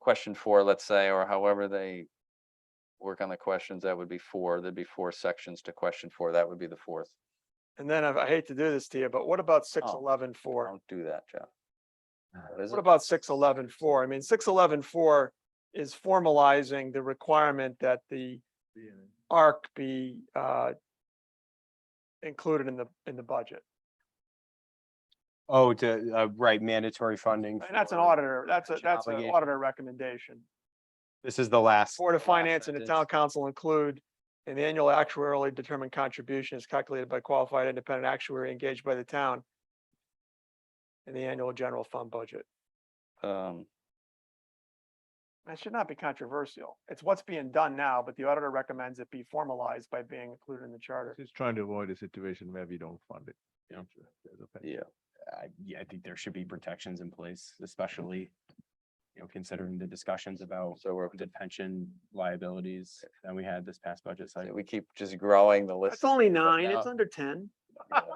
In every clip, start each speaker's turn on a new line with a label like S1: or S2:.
S1: question four, let's say, or however they work on the questions, that would be four, there'd be four sections to question four, that would be the fourth.
S2: And then I I hate to do this to you, but what about six
S1: Oh.
S2: eleven four? Uh,
S1: Don't do that, Jeff. What is
S2: What
S1: it?
S2: about six eleven four? I mean, six eleven four is formalizing the requirement that the ARC be uh included in the, in the budget.
S3: Oh, to, uh, right, mandatory funding.
S2: And that's an
S3: for-
S2: auditor, that's a,
S3: pension
S2: that's an
S3: obligation.
S2: auditor recommendation.
S3: This is the last.
S2: Board of
S3: last
S2: Finance and the town
S3: sentence.
S2: council include an annual actuarially determined contribution is calculated by qualified independent actuary engaged by the town in the annual general fund budget.
S1: Um,
S2: That should not be controversial. It's what's being done now, but the auditor recommends it be formalized by being included in the charter.
S4: Just trying to avoid a situation where we don't fund it. in the future. There's a pension.
S1: yeah,
S3: I- Uh, Yeah, I think there should be protections in place, especially, you know, considering the discussions about
S1: so we're,
S3: the pension liabilities that we had this past budget
S1: so
S3: cycle.
S1: we keep just growing the list.
S2: It's only nine,
S1: nine,
S2: it's
S1: it's
S2: under ten.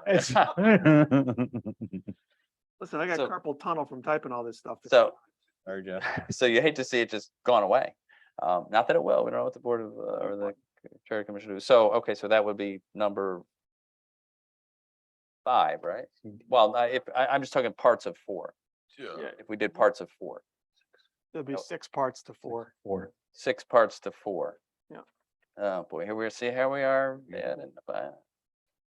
S3: It's-
S2: Listen, I got
S1: So-
S2: carpal tunnel from typing all this stuff.
S1: So,
S3: Sorry, Jeff.
S1: so you hate to see it just gone away. Um, not that it will, we don't know what the board of, uh, or the charter commission do. So, okay, so that would be number five, right? Well, I, if, I, I'm just talking parts of four.
S2: Yeah.
S1: If we did parts of four,
S2: There'll be
S1: no.
S2: six parts to four.
S3: Or.
S1: six parts to four.
S2: Yeah.
S1: Oh, boy, here we are, see how we are, yeah, and, uh,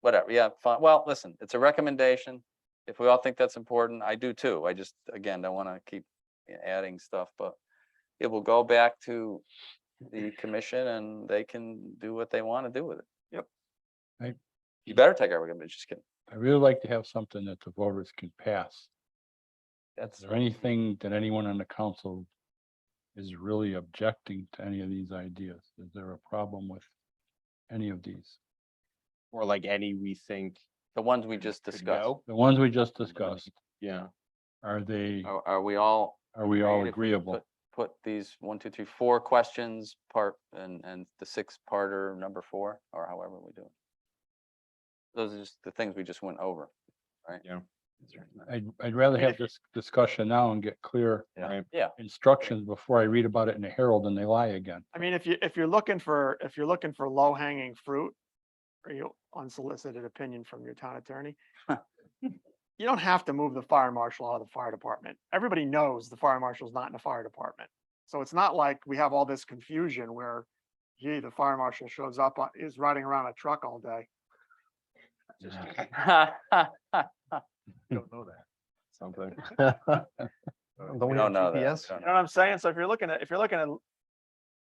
S1: whatever, yeah, fine. Well, listen, it's a recommendation. If we all think that's important, I do too. I just, again, don't want to keep you know, adding stuff, but it will go back to the commission and they can do what they want to do with it.
S2: Yep.
S5: Right.
S1: You better take our recommendation, just kidding.
S5: I really like to have something that the voters can pass. Is
S1: That's,
S5: there anything that anyone on the council is really objecting to any of these ideas? Is there a problem with any of these?
S3: Or like any we think.
S1: the ones we just
S3: could
S1: discussed.
S3: go.
S5: The ones we just discussed,
S3: Yeah,
S5: are they,
S1: Are, are we all
S5: are we all
S1: Right, if we
S5: agreeable?
S1: put- Put these one, two, three, four questions part and, and the six parter number four or however we do it. Those are just the things we just went over.
S3: yeah.
S5: I'd, I'd rather have this discussion now and get clear
S1: Yeah.
S3: Right.
S1: Yeah.
S5: instructions before I read about it in the Herald and they lie again.
S2: I mean, if you, if you're looking for, if you're looking for low hanging fruit, or you unsolicited opinion from your town attorney, you don't have to move the fire marshal out of the fire department. Everybody knows the fire marshal's not in the fire department. So it's not like we have all this confusion where, gee, the fire marshal shows up, on- is riding around a truck all day.
S4: Don't know that.
S3: Something.
S1: We don't know that.
S2: You
S1: Don't
S2: know what I'm saying? So if you're looking at, if you're looking at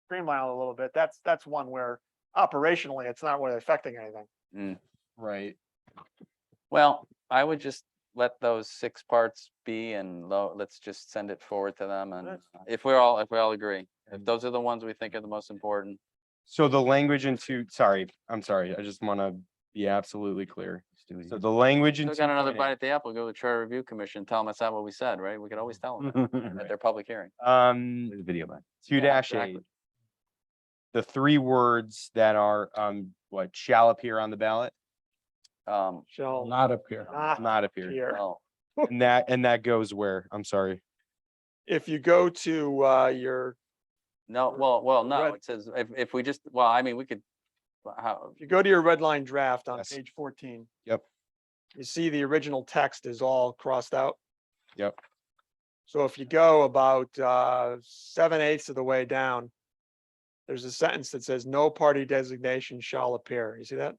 S2: streamline it a little bit, that's, that's one where operationally, it's not really affecting anything.
S3: Right.
S1: Well, I would just let those six parts be and lo, let's just send it forward to them and
S2: That's
S1: if we're all, if we all agree, if those are the ones we think are the most important.
S3: So the language in two, sorry, I'm sorry, I just want to be absolutely clear. So the language in.
S1: Still got another
S3: 2.8
S1: bite at the apple, go to the charter review commission, tell them that's not what we said, right? We could always tell them
S3: Mm-hmm.
S1: at their public hearing.
S3: Um,
S1: Video back.
S3: two
S1: Yeah,
S3: dash
S1: exactly.
S3: eight. The three words that are, um, what shall appear on the ballot,
S1: Um,
S2: Shall
S5: Not up here.
S1: Ah,
S2: not
S3: not appear,
S2: appear.
S1: well,
S3: and that, and that goes where, I'm sorry.
S2: If you go to, uh, your,
S1: No, well, well, no,
S2: red-
S1: it says, if, if we just, well, I mean, we could, well, how,
S2: if you go to your red line draft on
S3: Yes.
S2: page fourteen.
S3: Yep.
S2: You see the original text is all crossed out.
S3: Yep.
S2: So if you go about, uh, seven eighths of the way down, there's a sentence that says, no party designation shall appear. You see that?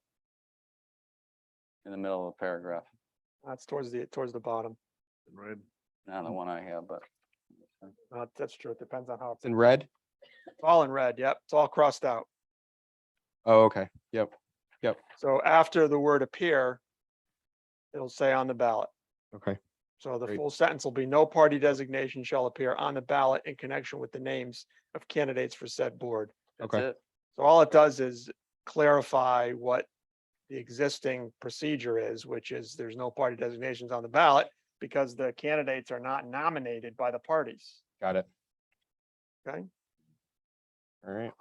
S1: in the middle of the paragraph,
S2: That's towards the, towards the bottom.
S4: Right.
S1: not the one I have, but.
S2: Uh, that's true. It depends on how it's
S3: It's in red?
S2: It's all in red, yep, it's all crossed out.
S3: Oh, okay. Yep.
S2: So after the word appear, it'll say on the ballot.
S3: Okay.
S2: So the
S3: Great.
S2: full sentence will be, no party designation shall appear on the ballot in connection with the names of candidates for said board.
S1: that's
S3: Okay.
S1: it.
S2: So all it does is clarify what the existing procedure is, which is there's no party designations on the ballot because the candidates are not nominated by the parties.
S3: Got it.
S2: Okay.
S3: All right.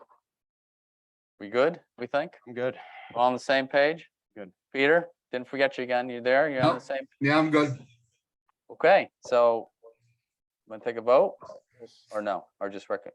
S1: We good, we think?
S3: I'm good.
S1: We're All on the same page?
S3: Good.
S1: Peter, didn't forget you again, you there, you're on the
S6: Nope.
S1: same,
S6: Yeah, I'm good.
S1: okay, so. Want to take a vote? Or no, or just rec,